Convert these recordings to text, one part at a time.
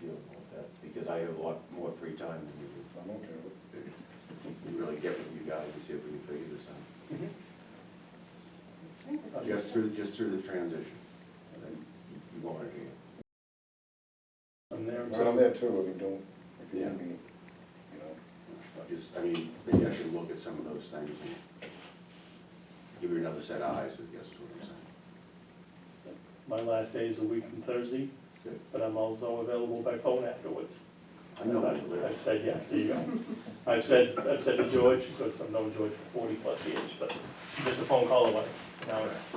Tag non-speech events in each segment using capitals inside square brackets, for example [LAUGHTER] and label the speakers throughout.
Speaker 1: feel about that, because I have a lot more free time than you do.
Speaker 2: I'm okay with it.
Speaker 1: We really get with you guys and see if we can figure this out.
Speaker 2: That's
Speaker 1: Just
Speaker 2: what-
Speaker 1: through, just through the transition. And then you want it again.
Speaker 3: I'm there.
Speaker 2: Well, I'm there too, I mean, don't, if you
Speaker 1: Yeah.
Speaker 2: want me, you know,
Speaker 1: I Just, I mean, maybe I should look at some of those things and give you another set of eyes, I guess is what I'm saying.
Speaker 3: My last day is a week from Thursday,
Speaker 1: Good.
Speaker 3: but I'm also available by phone afterwards.
Speaker 1: I know where you
Speaker 3: I've- I've
Speaker 1: live.
Speaker 3: said yes, there you go. I've said, I've said to George, because I've known George for forty plus years, but just a phone call away. Now it's,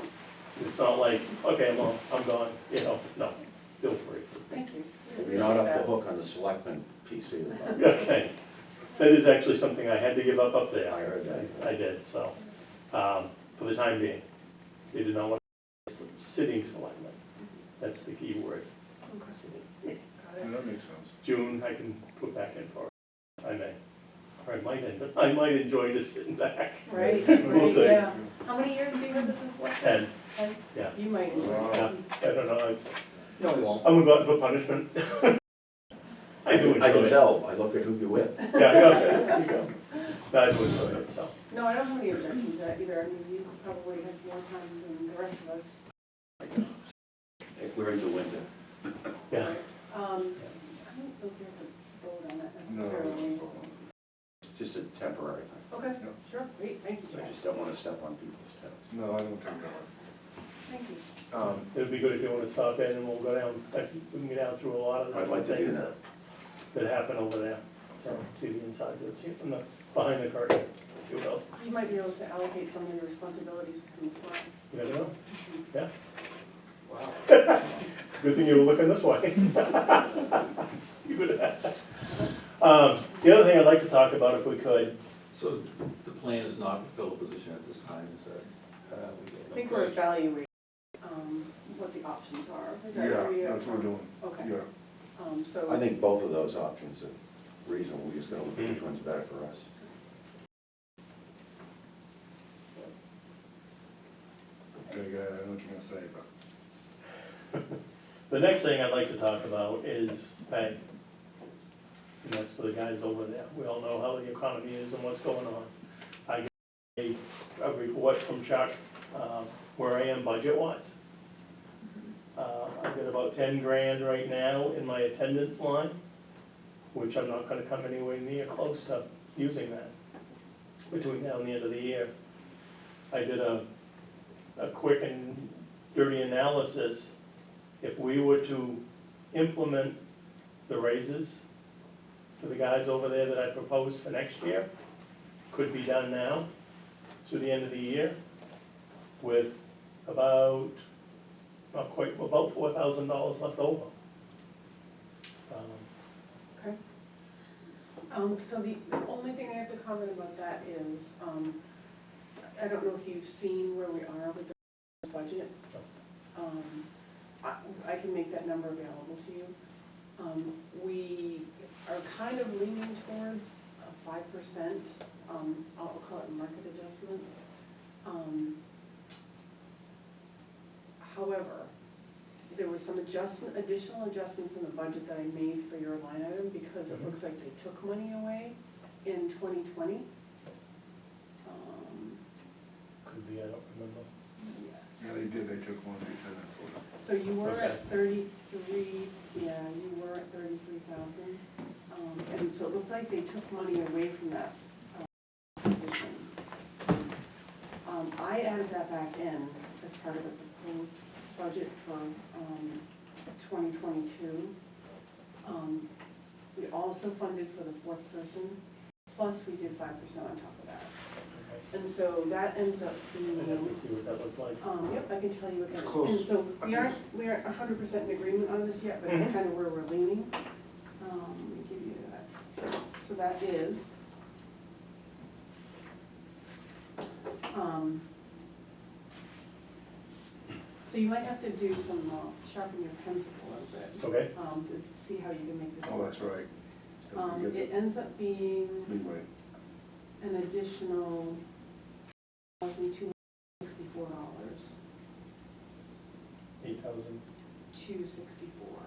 Speaker 3: it's not like, okay, well, I'm gone, you know, no, feel free.
Speaker 4: Thank you.
Speaker 1: You're not off the hook on the selectmen piece either. Bob.
Speaker 3: Okay, that is actually something I had to give up up there.
Speaker 1: I heard that.
Speaker 3: I did, so, um, for the time being, they did not want sitting selectmen. That's the key word, sitting.
Speaker 2: Yeah, that makes sense.
Speaker 3: June, I can put back in for it, I may. Or I might end, I might enjoy just sitting back.
Speaker 4: Right,
Speaker 3: We'll
Speaker 4: right,
Speaker 3: see.
Speaker 4: yeah. How many years do you have as a selectman?
Speaker 3: And,
Speaker 4: And
Speaker 3: yeah,
Speaker 4: You might.
Speaker 3: yeah, I don't know, it's,
Speaker 5: No, we won't.
Speaker 3: I'm about for
Speaker 1: [LAUGHS]
Speaker 3: punishment. I do enjoy it.
Speaker 1: I can tell, I look at who you're with.
Speaker 3: Yeah, yeah, you go. No, I do enjoy it, so,
Speaker 4: No, I don't have any objection to that either. I mean, you probably have more time than the rest of us.
Speaker 1: If we're into winter,
Speaker 3: yeah.
Speaker 4: Um, s- I don't know if you have to vote on that
Speaker 2: No,
Speaker 4: necessarily. so-
Speaker 1: it's just a temporary thing.
Speaker 4: Okay,
Speaker 2: No.
Speaker 4: sure, great, thank you,
Speaker 1: I
Speaker 4: Jack.
Speaker 1: just don't want to step on people's toes.
Speaker 2: No, I don't think that
Speaker 4: Thank you.
Speaker 2: one. Um,
Speaker 3: It'd be good if you wanna stop in and we'll go down, like, we can get down through a lot of
Speaker 1: I'd like
Speaker 3: the
Speaker 1: to do
Speaker 3: things that,
Speaker 1: that.
Speaker 3: that happen over there. So, see the insides, of it, see from the, behind the curtain, if you will,
Speaker 4: You might be able to allocate some of your responsibilities to me as well.
Speaker 3: you never know, yeah.
Speaker 5: Wow.
Speaker 3: Good thing you were looking this way. [LAUGHS] You would have. Um, the other thing I'd like to talk about, if we could,
Speaker 5: So the plan is not to fill a position at this time, is that? uh, we get
Speaker 4: I think we're
Speaker 5: approached?
Speaker 4: evaluating, um, what the options are. Is that where we
Speaker 2: yeah,
Speaker 4: are?
Speaker 2: that's what we're doing,
Speaker 4: Okay,
Speaker 2: yeah.
Speaker 4: um, so.
Speaker 1: I think both of those options are reasonable, we're just gonna look at which one's better for us.
Speaker 2: Okay, yeah, I know what you're gonna say, but
Speaker 3: the next thing I'd like to talk about is pay. And that's for the guys over there. We all know how the economy is and what's going on. I got a, a report from Chuck, um, where I am budget-wise. Uh, I've got about ten grand right now in my attendance line, which I'm not gonna come anywhere near close to using that. Between now and the end of the year. I did a, a quick and dirty analysis. If we were to implement the raises for the guys over there that I proposed for next year, could be done now through the end of the year with about, not quite, about four thousand dollars left over. Um,
Speaker 4: Okay. Um, so the, the only thing I have to comment about that is, um, I don't know if you've seen where we are with the budget. Um, I, I can make that number available to you. Um, we are kind of leaning towards a five percent, um, I'll call it market adjustment. Um, However, there was some adjustment, additional adjustments in the budget that I made for your line item because it
Speaker 3: Mhm.
Speaker 4: looks like they took money away in twenty twenty. Um,
Speaker 3: Could be, I don't remember.
Speaker 2: yeah, they did, they took one, they said that's what.
Speaker 4: So you were at
Speaker 3: Okay.
Speaker 4: thirty-three, yeah, you were at thirty-three thousand. Um, and so it looks like they took money away from that, um, position. Um, I added that back in as part of the proposed budget for, um, twenty twenty-two. Um, we also funded for the fourth person, plus we did five percent on top of that.
Speaker 3: Okay.
Speaker 4: And so that ends up
Speaker 3: And
Speaker 4: being.
Speaker 3: then we see what that looked like.
Speaker 4: Um, yep, I can tell you again.
Speaker 2: It's close.
Speaker 4: And so we aren't, we aren't hundred percent in agreement on this yet, but it's
Speaker 3: Mhm.
Speaker 2: Mm-hmm.
Speaker 4: kind of where we're leaning. Um, let me give you that. So, so that is. Um. So you might have to do some, uh, sharpen your pencil a little bit,
Speaker 3: Okay,
Speaker 4: um, to see how you can make this
Speaker 2: Oh,
Speaker 4: work.
Speaker 2: that's right. Mm. Don't
Speaker 4: Um,
Speaker 2: forget
Speaker 4: it
Speaker 2: the
Speaker 4: ends up being
Speaker 2: Leeway,
Speaker 4: an additional thousand two hundred sixty-four dollars.
Speaker 3: eight thousand.
Speaker 4: two sixty-four.